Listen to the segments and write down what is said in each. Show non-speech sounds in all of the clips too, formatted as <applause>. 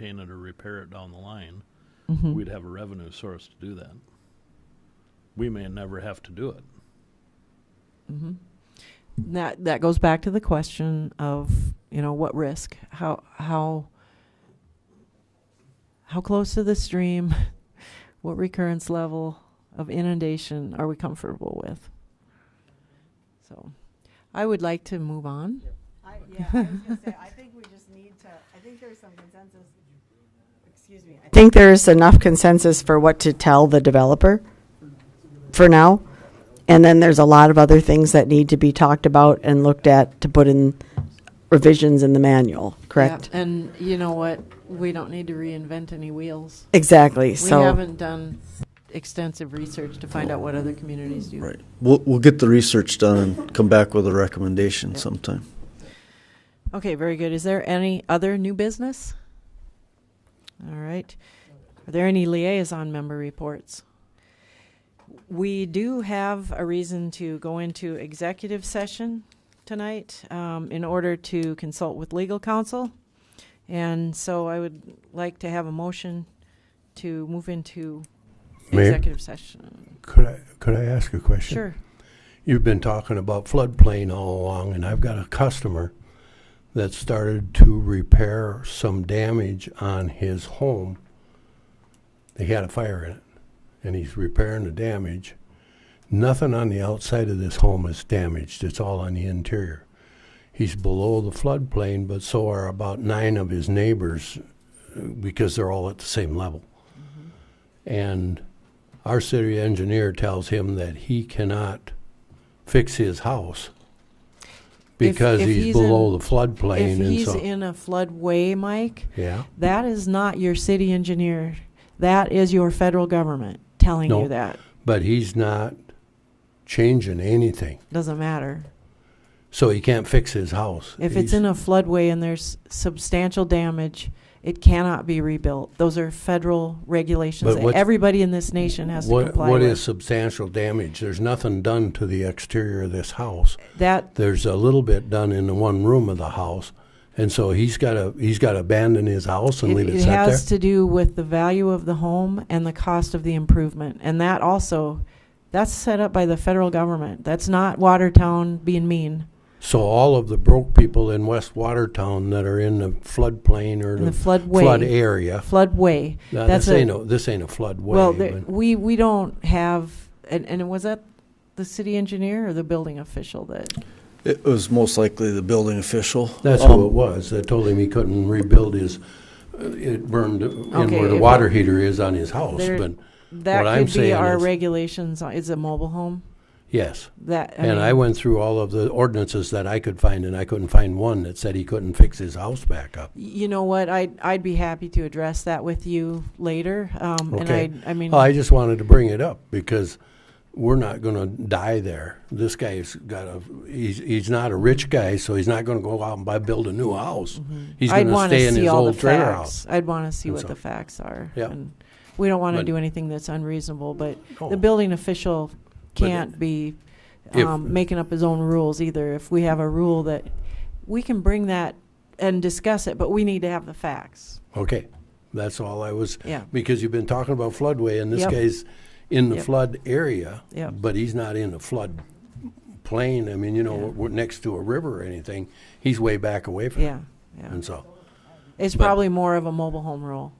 maintain it or repair it down the line, Mhm. we'd have a revenue source to do that. We may never have to do it. Mm-hmm. That, that goes back to the question of, you know, what risk? How, how, how close to the stream? <laughs> What recurrence level of inundation are we comfortable with? So I would like to move on. I, yeah, I was gonna say, I think we just need to, I think there's some consensus, excuse me. I think there's enough consensus for what to tell the developer for now. And then there's a lot of other things that need to be talked about and looked at to put in revisions in the manual, correct? Yeah, And you know what? We don't need to reinvent any wheels. Exactly, We so, haven't done extensive research to find out what other communities do. Right. We'll, we'll get the research done and come back with a recommendation sometime. Okay, very good. Is there any other new business? All right. Are there any liaison member reports? We do have a reason to go into executive session tonight um, in order to consult with legal counsel. And so I would like to have a motion to move into Mayor? executive session. Could I, could I ask a question? Sure. You've been talking about floodplain all along, and I've got a customer that started to repair some damage on his home. He had a fire in it, and he's repairing the damage. Nothing on the outside of this home is damaged, it's all on the interior. He's below the floodplain, but so are about nine of his neighbors uh, because they're all at the same level. Mm-hmm. And our city engineer tells him that he cannot fix his house because if he's he's below in- the floodplain If and he's so. in a floodway, Mike, Yeah, That is not your city engineer. That is your federal government telling you No. that. but he's not changing anything, Doesn't matter. so he can't fix his house. If it's in a floodway and there's substantial damage, it cannot be rebuilt. Those are federal regulations But that what's- everybody in this nation has to what, comply what is with. substantial damage? There's nothing done to the exterior of this house. That, There's a little bit done in the one room of the house, and so he's got to he's got to abandon his house and it leave it, it set there. has to do with the value of the home and the cost of the improvement. And that also, that's set up by the federal government. That's not Watertown being mean. so all of the broke people in West Watertown that are in the floodplain or In the flood floodway, area. floodway. Now, That's this a- ain't a, this ain't a floodway. Well, there- but- we, we don't have, and, and was that the city engineer or the building official that? It was most likely the building official. That's Um, who it was. They told him he couldn't rebuild his, uh, it burned in Okay, where if the it- water heater is on his house, There- but What That I'm could be saying our is- regulations, on- is a mobile home, yes. that, I And I mean, went through all of the ordinances that I could find, and I couldn't find one that said he couldn't fix his house back up. You know what, I'd, I'd be happy to address that with you later, um, and Okay. Oh, I, I mean, I just wanted to bring it up because we're not gonna die there. This guy's got a, he's, he's not a rich guy, so he's not gonna go out and buy, build a new house. He's Mm-hmm. I'd gonna want stay to in see his all the old trailer facts. house. I'd want to see And what so- the facts are. Yeah. and We don't want to But- do anything that's unreasonable, but the No. building official Oh. But it- can't be If- um, making up his own rules either. If we have a rule that, we can bring that and discuss it, but we need to have the facts. Oh, Okay, that's all I was, Yeah. because you've been talking about floodway, and this Yep. guy's in the Yep. flood area, Yep. but he's not in the flood plain, I mean, you know, Yeah. we're next to a river or anything, he's way back away from it. Yeah, yeah. And so, It's but- probably more of a mobile home rule.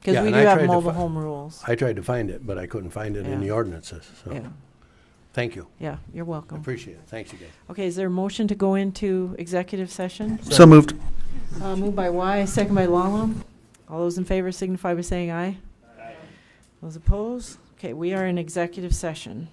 Because Yeah, we and do I have tried to mobile fi- home rules. I tried to find it, but I couldn't find it in Yeah. the ordinances, so, Yeah, thank you, yeah, you're I welcome. appreciate it, thanks you guys. Okay, is there a motion to go into executive session? So moved. Uh, moved by Y, second by Lala. All those in favor signify by saying aye. Those opposed? Okay, we are in executive session.